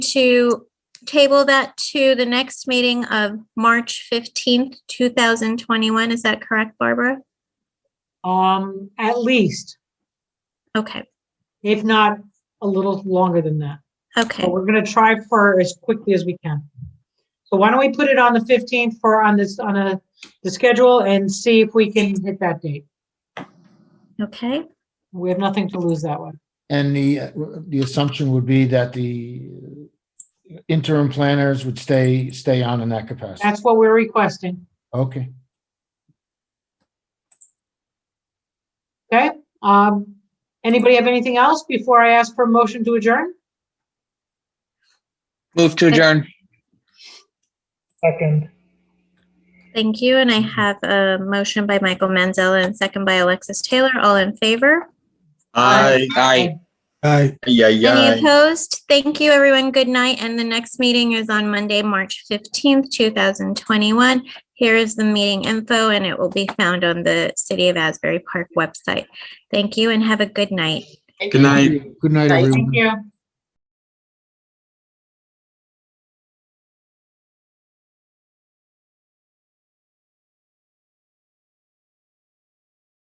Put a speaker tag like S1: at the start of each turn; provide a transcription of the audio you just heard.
S1: to table that to the next meeting of March 15th, 2021. Is that correct, Barbara?
S2: Um, at least,
S1: Okay,
S2: if not a little longer than that.
S1: okay,
S2: But we're gonna try for as quickly as we can. So why don't we put it on the fifteenth for on this, on a, the schedule and see if we can hit that date.
S1: okay.
S2: We have nothing to lose that way.
S3: And the, uh, the assumption would be that the interim planners would stay, stay on in that capacity.
S2: That's what we're requesting,
S3: Okay,
S2: okay? Um, anybody have anything else before I ask for a motion to adjourn?
S4: Move to adjourn.
S2: Second.
S1: Thank you. And I have a motion by Michael Manzella and second by Alexis Taylor. All in favor?
S2: Aye.
S4: Aye. Yeah,
S1: Any
S4: yeah.
S1: opposed? Thank you, everyone. Good night. And the next meeting is on Monday, March 15th, 2021. Here is the meeting info, and it will be found on the City of Asbury Park website. Thank you and have a good night.
S4: Good night.
S3: good night, everyone.
S2: Thank you.